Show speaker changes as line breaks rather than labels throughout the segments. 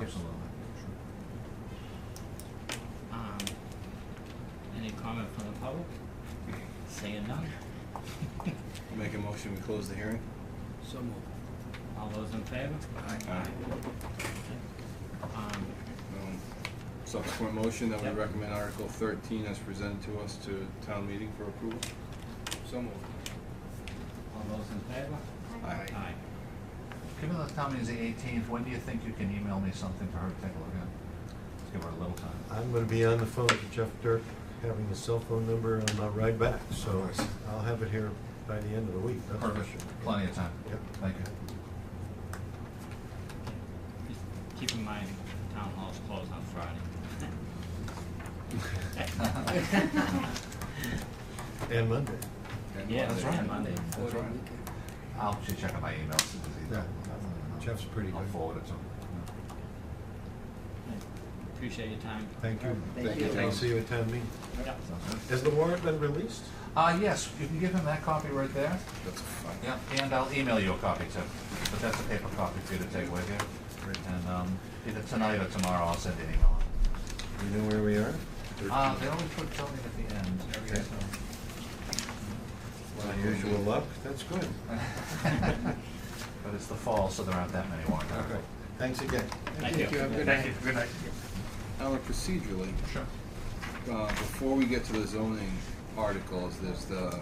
Absolutely.
Um, any comment from the public? Seeing none.
Make a motion, we close the hearing?
So moved.
All those in favor?
Aye.
Um,
Um, Subsequent motion that we
Yep.
recommend Article thirteen as presented to us to town meeting for approval?
So moved.
all those in favor?
Aye.
Aye.
Given the town meeting is the eighteenth, when do you think you can email me something for her to take a look at? Let's give her a little time.
I'm gonna be on the phone to Jeff Dirk, having his cell phone number on my ride back, so
Nice.
I'll have it here by the end of the week, that's for sure.
Perfect, plenty of time.
Yep.
Thank you.
Just keep in mind, town hall's closed on Friday.
And Monday.
And-
Yeah,
That's
and
right.
Monday.
For
That's
the
right.
weekend.
I'll just check out my emails. as soon as he's done.
Jeff's pretty
I'll
good.
forward it to him.
Appreciate your time.
Thank you.
Thank you.
I'll see you at town meeting.
Yep.
Sounds good.
Has the warrant been released?
Uh, yes, you can give him that copy right there.
That's a fun.
Yeah, and I'll email you a copy too, but that's a paper copy for you to take with you. And, um, either tonight or tomorrow, I'll send an email.
You know where we are?
Um,
Uh, they always put something at the end.
Okay. Unusual luck, that's good.
so- But it's the fall, so there aren't that many warrant
Okay,
articles.
thanks again.
Thank you, have a good night.
Good night.
Alan, procedurally,
Sure.
uh, before we get to the zoning articles, there's the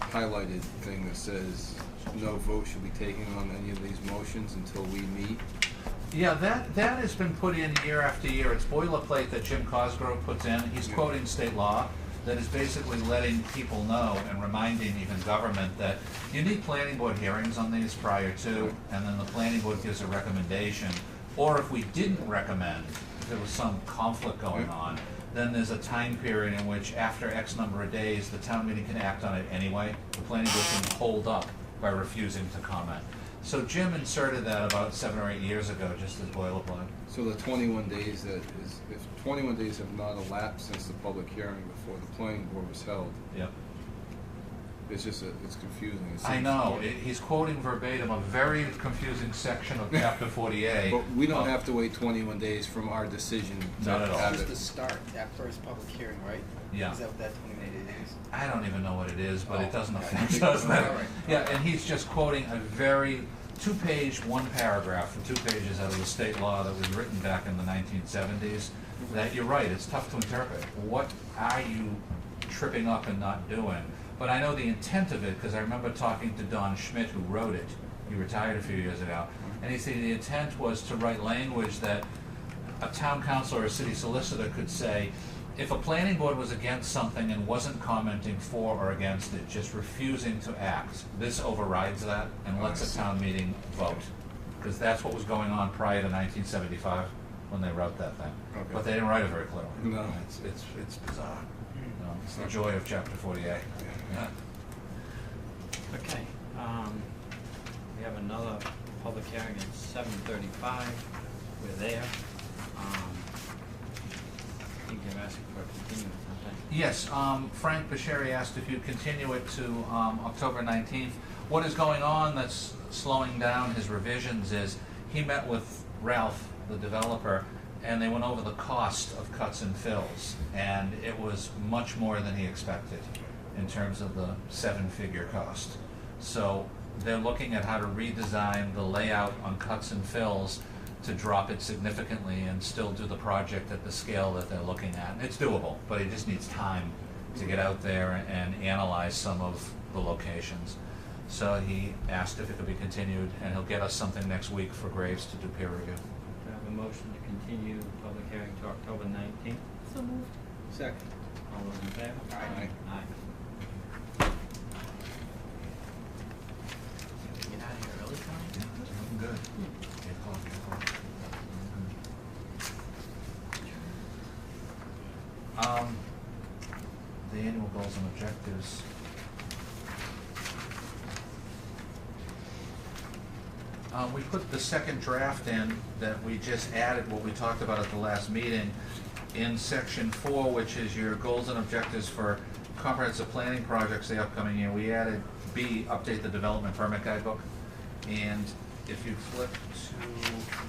highlighted thing that says no vote should be taken on any of these motions until we meet.
Yeah, that, that has been put in year after year. It's boilerplate that Jim Cosgrove puts in. He's
Yeah.
quoting state law that is basically letting people know and reminding even government that you need planning board hearings on these prior to, and then the planning board gives a recommendation. Or if we didn't recommend, if there was some conflict going
Yeah.
on, then there's a time period in which after X number of days, the town meeting can act on it anyway. The planning board can hold up by refusing to comment. So Jim inserted that about seven or eight years ago, just as boilerplate.
So the twenty-one days that is, if twenty-one days have not elapsed since the public hearing before the planning board was held,
Yep.
it's just, a- it's confusing. It
I
seems-
know, it- he's quoting verbatim a very confusing section of chapter forty-eight.
But we don't have to wait twenty-one days from our decision to
Oh. Not at all.
have
Just
it.
to start, that first public hearing, right?
Yeah.
Is that what that twenty-eight days?
I don't even know what it is, but
Oh,
it doesn't
okay.
affect us.
All right.
Yeah, and he's just quoting a very, two-page, one paragraph, for two pages out of the state law that was written back in the nineteen seventies, that you're right, it's tough to interpret. What are you tripping up and not doing? But I know the intent of it, because I remember talking to Don Schmidt, who wrote it, he retired a few years ago, and he said the intent was to write language that a town council or a city solicitor could say, if a planning board was against something and wasn't commenting for or against it, just refusing to act, this overrides that and lets a town meeting vote. Because that's what was going on prior to nineteen seventy-five, when they wrote that thing.
Okay.
But they didn't write it very clearly.
No. Hmm.
It's, it's, it's bizarre. No, It's the joy of chapter forty-eight. Yeah.
Okay, um, we have another public hearing at seven thirty-five, we're there. Um, I think they're asking for a continuance, aren't they?
Yes, um, Frank Basheri asked if you continue it to, um, October nineteenth. What is going on that's slowing down his revisions is, he met with Ralph, the developer, and they went over the cost of cuts and fills, and it was much more than he expected in terms of the seven-figure cost. So they're looking at how to redesign the layout on cuts and fills to drop it significantly and still do the project at the scale that they're looking at. And it's doable, but it just needs time to get out there and analyze some of the locations. So he asked if it could be continued, and he'll get us something next week for Graves to do peer review.
Do I have a motion to continue the public hearing to October nineteenth?
So moved.
Second.
All those in favor?
Aye.
Aye.
Get out of here early, Tom.
Good. Um, the annual goals and objectives. Uh, we put the second draft in that we just added what we talked about at the last meeting in section four, which is your goals and objectives for comprehensive planning projects the upcoming year. We added B, update the development permit guidebook. And if you flip to